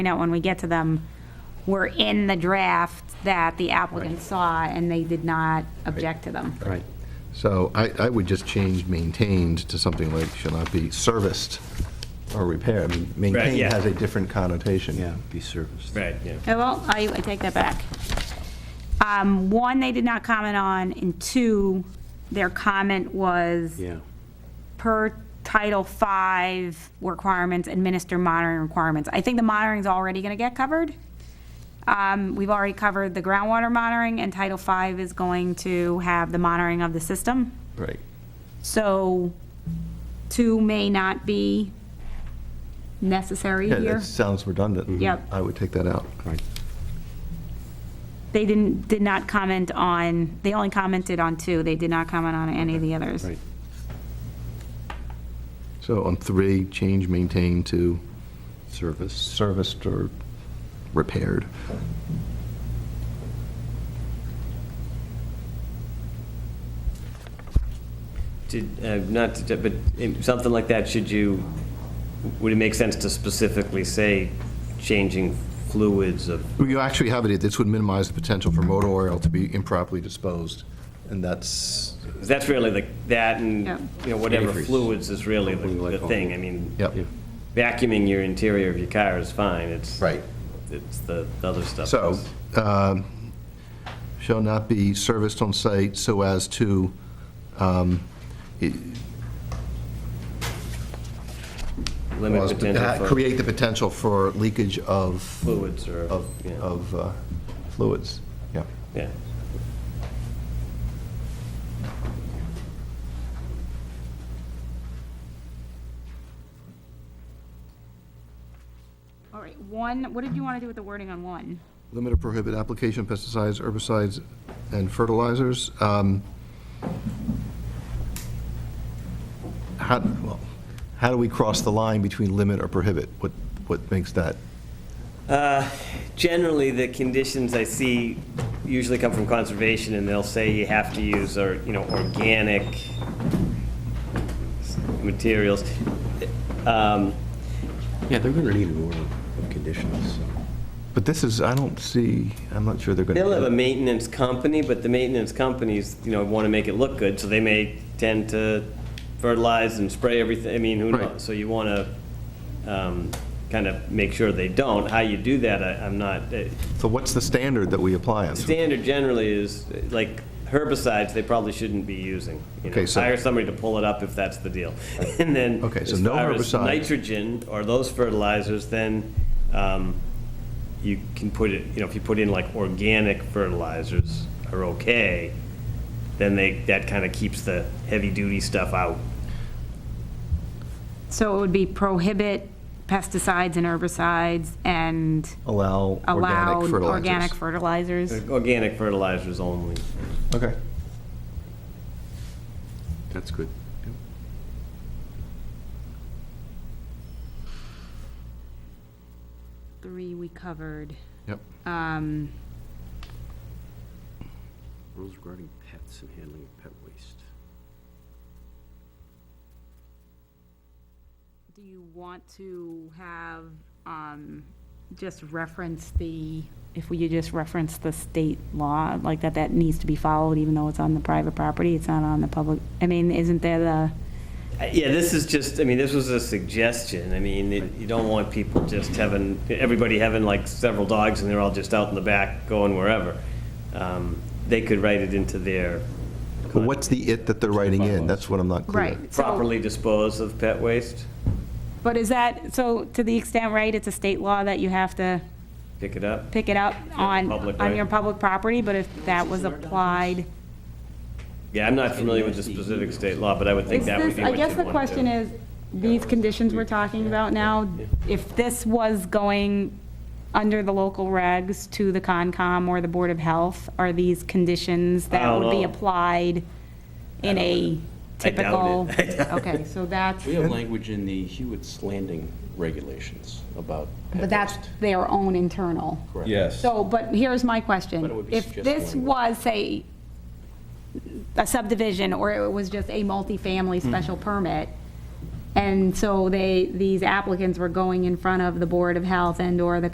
find out when we get to them, were in the draft that the applicant saw, and they did not object to them. Right. So I, I would just change maintained to something like shall not be serviced or repaired. I mean, Maintained yeah. has a different connotation. Yeah, be serviced. Right, yeah. Oh, Well, I, I take that back. Um, One, they did not comment on, and two, their comment was Yeah. per Title V requirements, administer monitoring requirements. I think the monitoring's already going to get covered. Um, We've already covered the groundwater monitoring, and Title V is going to have the monitoring of the system. Right. So two may not be necessary Yeah, here. Mm-hmm. that sounds redundant. Yep. I would take that out. Right. They didn't, did not comment on, they only commented on two. They did not comment on any of the others. Right. So on three, change maintained to Service. serviced or repaired. Did, uh, not, to- but um, something like that, should you, would it make sense to specifically say changing fluids of, Well, You actually have it, this would minimize the potential for motor oil to be improperly disposed, and that's, 'cause that's really the, that and, Yeah. you know, whatever Antifreeze. fluids is really Something the like the thing. I mean, yep. Yeah. vacuuming your interior of your car is fine, it's. Right. It's the the other stuff. So, um, shall not be serviced on site so as to, um, it- Limit cause- potential uh, for create the potential for leakage of, fluids or, of, yeah. of uh, fluids, yeah. yeah. All right, one, what did you want to do with the wording on one? Limit or prohibit application of pesticides, herbicides, and fertilizers. Um, How, well, how do we cross the line between limit or prohibit? What, what makes that? Generally, the conditions I see usually come from conservation, and they'll say you have to use, or, you know, organic materials. Um, Yeah, they're going to need an order of conditions, so. But this is, I don't see, I'm not sure they're going to. They'll have a maintenance company, but the maintenance companies, you know, want to make it look good, so they may tend to fertilize and spray everything, I mean, who Right. knows? So you want to kind of make sure they don't. How you do that, I- I'm not, uh, So what's the standard that we apply on? standard generally is, like, herbicides, they probably shouldn't be using. you know. Okay, so- Hire somebody to pull it up if that's the deal. And then. Okay, so as no far as herbicide. Nitrogen or those fertilizers, then um, you can put it, you know, if you put in like organic fertilizers are okay, then they, that kind of keeps the heavy-duty stuff out. So it would be prohibit pesticides and herbicides and Allow allow organic fertilizers. organic fertilizers. Organic fertilizers only. Okay. That's good. Three we covered. Yep. Um, Rules regarding pets and handling of pet waste. Do you want to have, um, just reference the, if we could just reference the state law, like that, that needs to be followed even though it's on the private property, it's not on the public, I mean, isn't there the, Uh, Yeah, this is just, I mean, this was a suggestion. I mean, it- you don't want people just having, everybody having like several dogs and they're all just out in the back going wherever. Um, They could write it into their But what's the it that they're writing in? That's what I'm not clear. right? so- properly dispose of pet waste, But is that, so to the extent, right, it's a state law that you have to pick it up. pick it up on, public, on right? your public property, but if that was applied. Yeah, I'm not familiar with the specific state law, but I would think Is that would this- be what I guess you'd the wanna question do. is, these conditions we're talking about now, if this was going under the local regs to the Concom or the Board of Health, are these conditions that would be Oh. applied in a I typical? doubt it. Okay, so that's, We have language in the Hewitt's Landing regulations about pet but that's waste. their own internal. Correct. Yes. So, but here's my question. But it would be If just this one. was, say, a subdivision, or it was just a Mm-hmm. multifamily special permit, and so they, these applicants were going in front of the Board of Health and/or the